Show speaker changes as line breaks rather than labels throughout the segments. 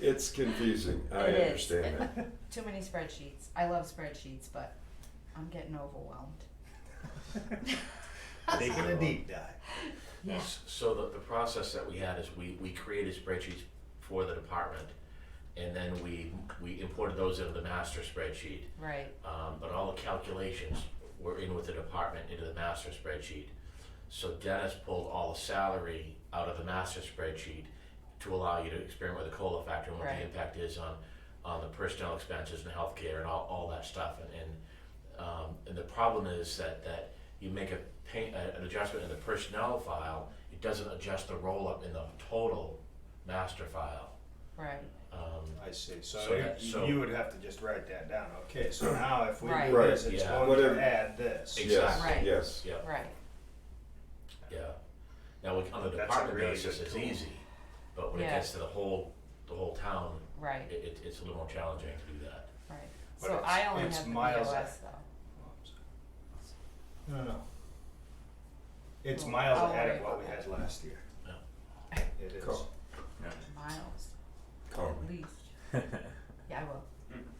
it's confusing. I
It is.
understand that.
Too many spreadsheets. I love spreadsheets, but I'm getting overwhelmed.
Taking a deep dive.
Yeah.
S- So the, the process that we had is we, we created spreadsheets for the department, and then we, we imported those into the master spreadsheet.
Right.
Um, but all the calculations were in with the department into the master spreadsheet. So Dennis pulled all the salary out of the master spreadsheet to allow you to experiment with the COLA factor and what
Right.
the impact is on, on the personnel expenses and healthcare and all, all that stuff. And, and, um, and the problem is that, that you make a pay, a- an adjustment in the personnel file, it doesn't adjust the roll-up in the total master file.
Right.
Um,
I see,
So
so
that- so-
you, you would have to just write that down, okay, so now if we
Right.
do this, it's
Right,
yeah.
going
Whatever.
to add this.
Exactly.
Yes,
Right.
yes.
yeah.
Right.
Yeah. Now, we- on the
That's a
department
really
basis,
good
it's
tool.
easy, but when it
Yeah.
gets to the whole, the whole town,
Right.
it, it, it's a little more challenging to do that.
Right.
But
so
it's-
I only
it's
have the
miles
POS
No, no, no. It's
Well,
miles
I'll
ahead
worry
of what
about
we
that.
had last year.
Yeah.
It is.
Cool.
though. Miles,
Call
at
me.
least. Yeah, I will.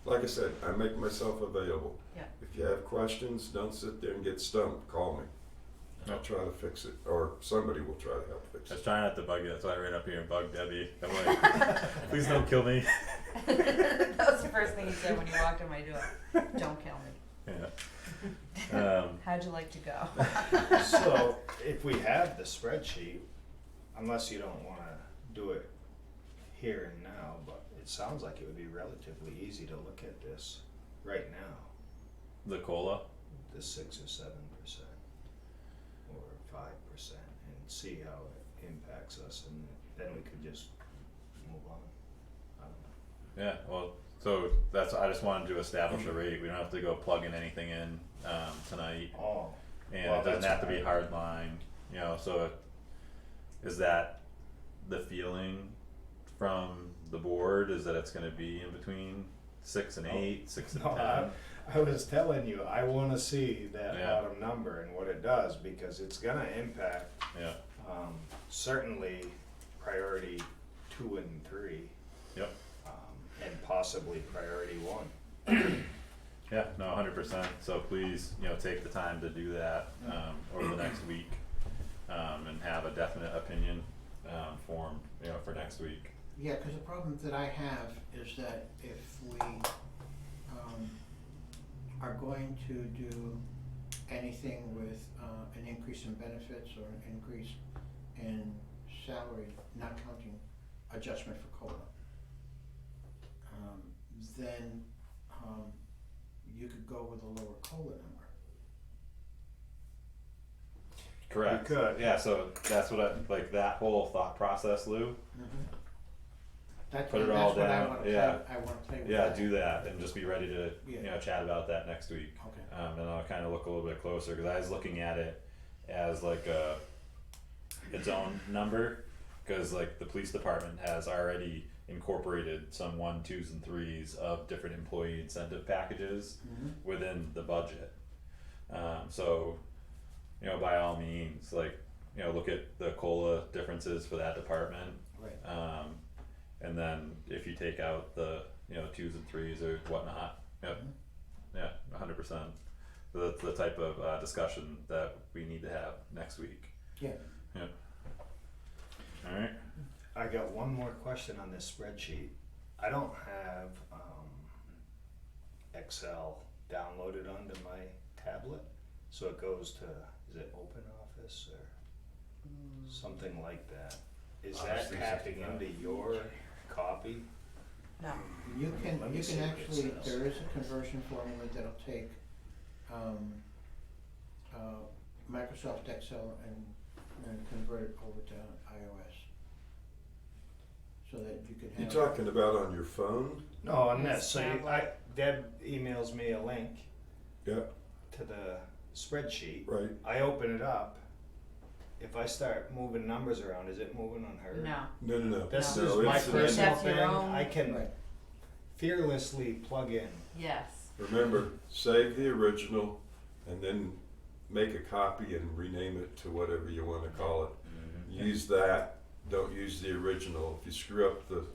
Like I said, I make myself available.
Yeah.
If you have questions, don't sit there and get stumped. Call me. I'll try to fix it, or somebody will try to help fix
I was
it.
trying not to bug you, that's why I ran up here and bugged Debbie. I'm like, please don't kill me.
that was the first thing you said when you walked in my door. Don't kill me.
Yeah. Um,
How'd you like to go?
So if we have the spreadsheet, unless you don't wanna do it here and now, but it sounds like it would be relatively easy to look at this right now,
the cola.
the six or seven percent or five percent and see how it impacts us and then we could just move on. I don't know.
Yeah. Well, so that's I just wanted to
Mm-hmm.
establish a rate. We don't have to go plugging anything in um, tonight,
Oh,
and
Well,
it doesn't
that's
have to be
fine.
hard line. You know, so it, is that the feeling from the board? Is that it's going to be in between six and
No.
eight, six and
No, I,
ten?
I was telling you, I wanna see that
Yeah.
bottom number and what it does because it's gonna impact
Yeah.
Um, certainly priority two and three,
Yep.
um, and possibly priority one.
Yeah, no, hundred percent, so please, you know, take the time to do that, um, over the next week, um, and have a definite opinion, um, formed, you know, for next week.
Yeah, because the problem that I have is that if we um, are going to do anything with uh, an increase in benefits or an increase in salary, not counting adjustment for COLA, um, then um, you could go with a lower COLA number.
Correct.
You could.
Yeah, so that's what I, like, that whole thought process, Lou,
That's
Put it
that's
all
what I
down,
wanna play-
yeah.
I wanna play with
yeah,
that.
do that, and just be ready to, you
Yeah.
know, chat about that next week.
Okay.
Um, and I'll kind of look a little bit closer because I was looking at it as like a its own number because like the police department has already incorporated some one, twos, and threes of different employee incentive packages within the budget. Um, so, you know, by all means, like you know, look at the cola differences for that department
Right.
um, and then if you take out the, you know, twos and threes or whatnot, yep, yeah, a hundred percent. So That's the type of, uh, discussion that we need to have next week,
Yeah.
yeah. Alright,
I got one more question on this spreadsheet. I don't have, um, Excel downloaded onto my tablet, so it goes to, is it Open Office or
Mm.
something like that? Is
Office
that tapping
365.
into your copy?
no.
You can,
Let me
you
see
can
what it
actually,
says.
there is a conversion formula that'll take, um, uh, Microsoft Excel and, and convert it over to iOS. So that you can
You
have.
talking about on your phone?
No, on
Yes,
this, so you, I,
tablet.
Deb emails me a link
Yeah,
to the spreadsheet.
right.
I open it up. If I start moving numbers around, is it moving on her?
No.
No, no, no.
This
no,
is my
it's an-
personal
That's your
thing.
own-
I can
Right,
fearlessly plug in.
Yes.
Remember, save the original and then make a copy and rename it to
Mm-hmm.
whatever you wanna call it. Use that, don't use the original. If you screw up the